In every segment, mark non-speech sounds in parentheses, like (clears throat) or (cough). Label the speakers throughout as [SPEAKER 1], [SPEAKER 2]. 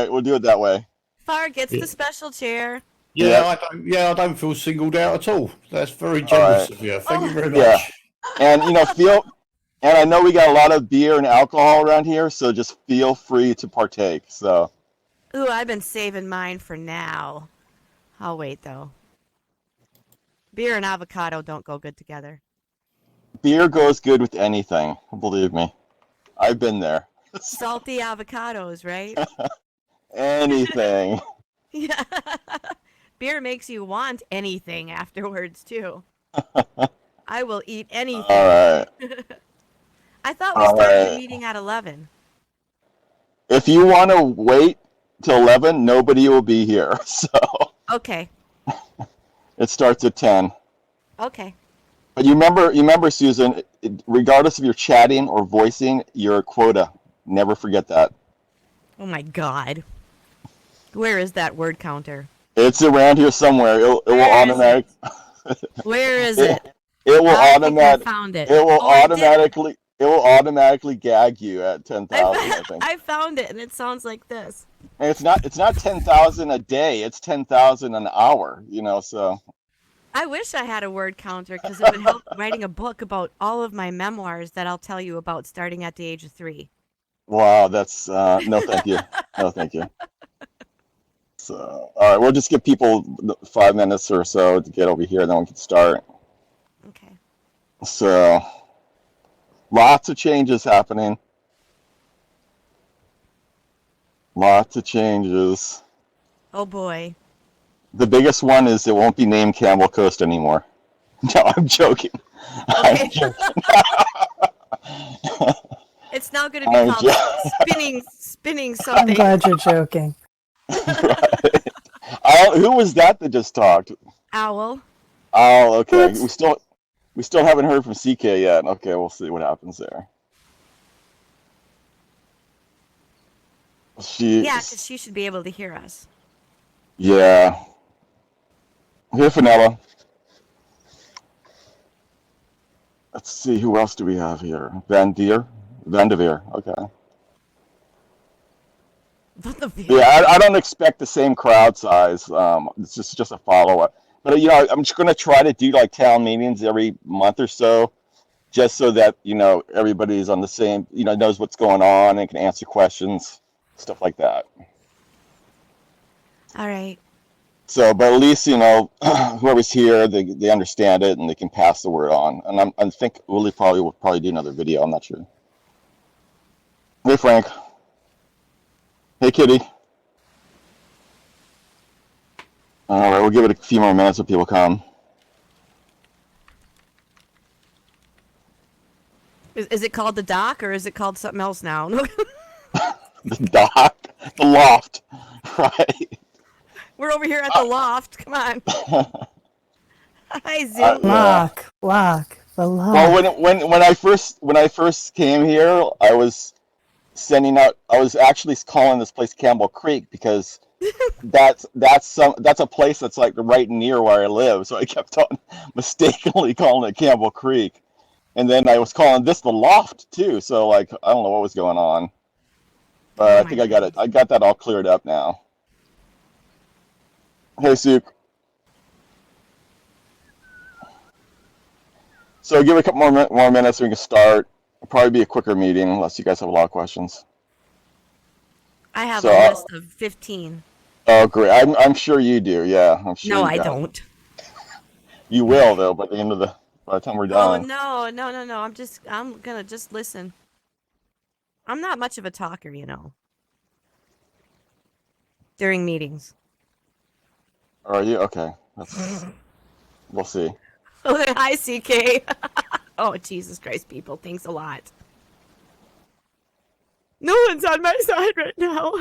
[SPEAKER 1] right, we'll do it that way.
[SPEAKER 2] Far gets
[SPEAKER 3] Yeah.
[SPEAKER 2] the special chair.
[SPEAKER 3] Yeah,
[SPEAKER 1] Yeah.
[SPEAKER 3] I don't, yeah, I don't feel singled out at all. That's very
[SPEAKER 1] right.
[SPEAKER 3] generous of you. Thank you very much.
[SPEAKER 1] Yeah. And you know, feel and I know we got a lot of beer and alcohol around here, so just feel free to partake. So
[SPEAKER 2] Ooh, I've been saving mine for now. I'll wait though. Beer and avocado don't go good together.
[SPEAKER 1] beer goes good with anything, believe me. I've been there.
[SPEAKER 2] Salty avocados, right?
[SPEAKER 1] (laughs)
[SPEAKER 2] (laughs)
[SPEAKER 1] Anything.
[SPEAKER 2] Yeah. Beer makes you want anything afterwards
[SPEAKER 1] (laughs)
[SPEAKER 2] too. I will eat anything.
[SPEAKER 1] All right.
[SPEAKER 2] I thought we started the
[SPEAKER 1] alright.
[SPEAKER 2] meeting at eleven.
[SPEAKER 1] If you want to wait till 11, nobody will be here. (laughs) So
[SPEAKER 2] Okay.
[SPEAKER 1] it starts at 10.
[SPEAKER 2] Okay.
[SPEAKER 1] But you remember, you remember, Susan. it- Regardless of your chatting or voicing, your quota. Never forget that.
[SPEAKER 2] Oh my god. Where is that word counter?
[SPEAKER 1] It's around here somewhere. It, it will
[SPEAKER 2] Where is
[SPEAKER 1] automatic.
[SPEAKER 2] Where is
[SPEAKER 1] It
[SPEAKER 2] it?
[SPEAKER 1] It will
[SPEAKER 2] I think I
[SPEAKER 1] automatic.
[SPEAKER 2] found it.
[SPEAKER 1] It will
[SPEAKER 2] Oh, I did.
[SPEAKER 1] automatically. It will automatically gag you at ten
[SPEAKER 2] I,
[SPEAKER 1] thousand. I
[SPEAKER 2] (laughs) fo-
[SPEAKER 1] think.
[SPEAKER 2] I found it, and it sounds like this.
[SPEAKER 1] And it's not. It's not ten thousand a day. It's ten thousand an hour. You know. So
[SPEAKER 2] I wish I had a word counter because it would help writing a book about all of my memoirs that I'll tell you about starting at the age of three.
[SPEAKER 1] wow. That's uh, no. Thank you. No. Thank you. So all right. We'll just give people th- five minutes or so to get over here, then we can start.
[SPEAKER 2] Okay.
[SPEAKER 1] So lots of changes happening. Lots of changes.
[SPEAKER 2] Oh boy.
[SPEAKER 1] The biggest one is it won't be named Campbell Coast anymore. (laughs) No, I'm joking. I'm
[SPEAKER 2] Okay.
[SPEAKER 1] joking.
[SPEAKER 2] It's now going to be
[SPEAKER 1] I'm
[SPEAKER 2] called
[SPEAKER 1] jo-
[SPEAKER 2] (laughs) spinning,
[SPEAKER 1] (laughs)
[SPEAKER 2] spinning
[SPEAKER 4] I'm
[SPEAKER 2] something.
[SPEAKER 4] glad you're joking.
[SPEAKER 1] Oh, who was that that just talked?
[SPEAKER 2] Owl.
[SPEAKER 1] Oh, okay.
[SPEAKER 4] That's-
[SPEAKER 1] We still we still haven't heard from CK yet. Okay, we'll see what happens there. She
[SPEAKER 2] Yeah, because she should be able to hear us.
[SPEAKER 1] Yeah. Here, Finella. Let's see, who else do we have here? Van Deer? Van de Veer, okay.
[SPEAKER 2] What the? fuck?
[SPEAKER 1] Yeah, I, I don't expect the same crowd size. Um, it's just, just a follow up. But, you know, I'm just going to try to do like town meetings every month or so, just so that, you know, everybody's on the same, you know, knows what's going on and can answer questions, stuff like that.
[SPEAKER 2] All right.
[SPEAKER 1] So, but at least you know (clears throat) whoever's here, they they understand it and they can pass the word on. And I'm I think Willie probably will probably do another video. I'm not sure. Hey Frank. Hey Kitty. All right, we'll give it a few more minutes if people come. (laughs)
[SPEAKER 2] Is, is it called the dock or is it called something else now? (laughs)
[SPEAKER 1] The dock, the loft, (laughs) right?
[SPEAKER 2] We're over here at the loft. Come
[SPEAKER 1] (laughs)
[SPEAKER 2] on. Hi, Zoom.
[SPEAKER 1] Uh,
[SPEAKER 4] Lock, lock, the lock.
[SPEAKER 1] Well, when when when I first when I first came here, I was sending out. I was actually calling this place Campbell Creek because that's that's some that's a place that's like right near where I live. So I kept on (laughs) mistakenly calling it Campbell Creek, and then I was calling this the Loft too. So like I don't know what was going on, but
[SPEAKER 2] Oh
[SPEAKER 1] I
[SPEAKER 2] my
[SPEAKER 1] think I got it. I got that all cleared up now. Hey, Suk. So give it a couple more, min- more minutes, we can start. It'll probably be a quicker meeting unless you guys have a lot of questions.
[SPEAKER 2] I have
[SPEAKER 1] So,
[SPEAKER 2] a
[SPEAKER 1] uh,
[SPEAKER 2] list of 15.
[SPEAKER 1] Oh, great. I'm, I'm sure you do. Yeah, I'm sure.
[SPEAKER 2] No,
[SPEAKER 1] you
[SPEAKER 2] I
[SPEAKER 1] got it.
[SPEAKER 2] don't.
[SPEAKER 1] You will though. By the end of the by the time we're
[SPEAKER 2] Oh
[SPEAKER 1] done.
[SPEAKER 2] no, no, no, no. I'm just I'm gonna just listen. I'm not much of a talker, you know. During meetings. (laughs)
[SPEAKER 1] Are you
[SPEAKER 2] (sighs)
[SPEAKER 1] okay? That's, we'll see.
[SPEAKER 2] Hi CK. (laughs) oh Jesus Christ, people. Thanks a lot. No one's on my side right now.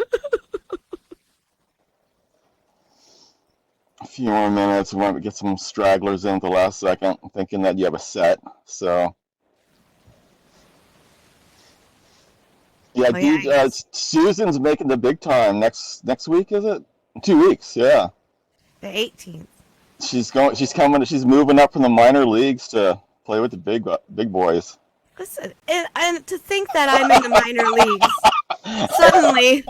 [SPEAKER 2] (laughs)
[SPEAKER 1] A few more minutes. We might get some stragglers in at the last second, thinking that you have a set. So. Yeah,
[SPEAKER 2] Oh, yeah,
[SPEAKER 1] dude,
[SPEAKER 2] I
[SPEAKER 1] uh, Susan's making the big time next next week, is it? Two weeks, yeah.
[SPEAKER 2] the 18th.
[SPEAKER 1] She's going. She's coming. She's moving up from the minor leagues to play with the big bu- big boys.
[SPEAKER 2] Listen, and, and to think that I'm in the minor leagues. Suddenly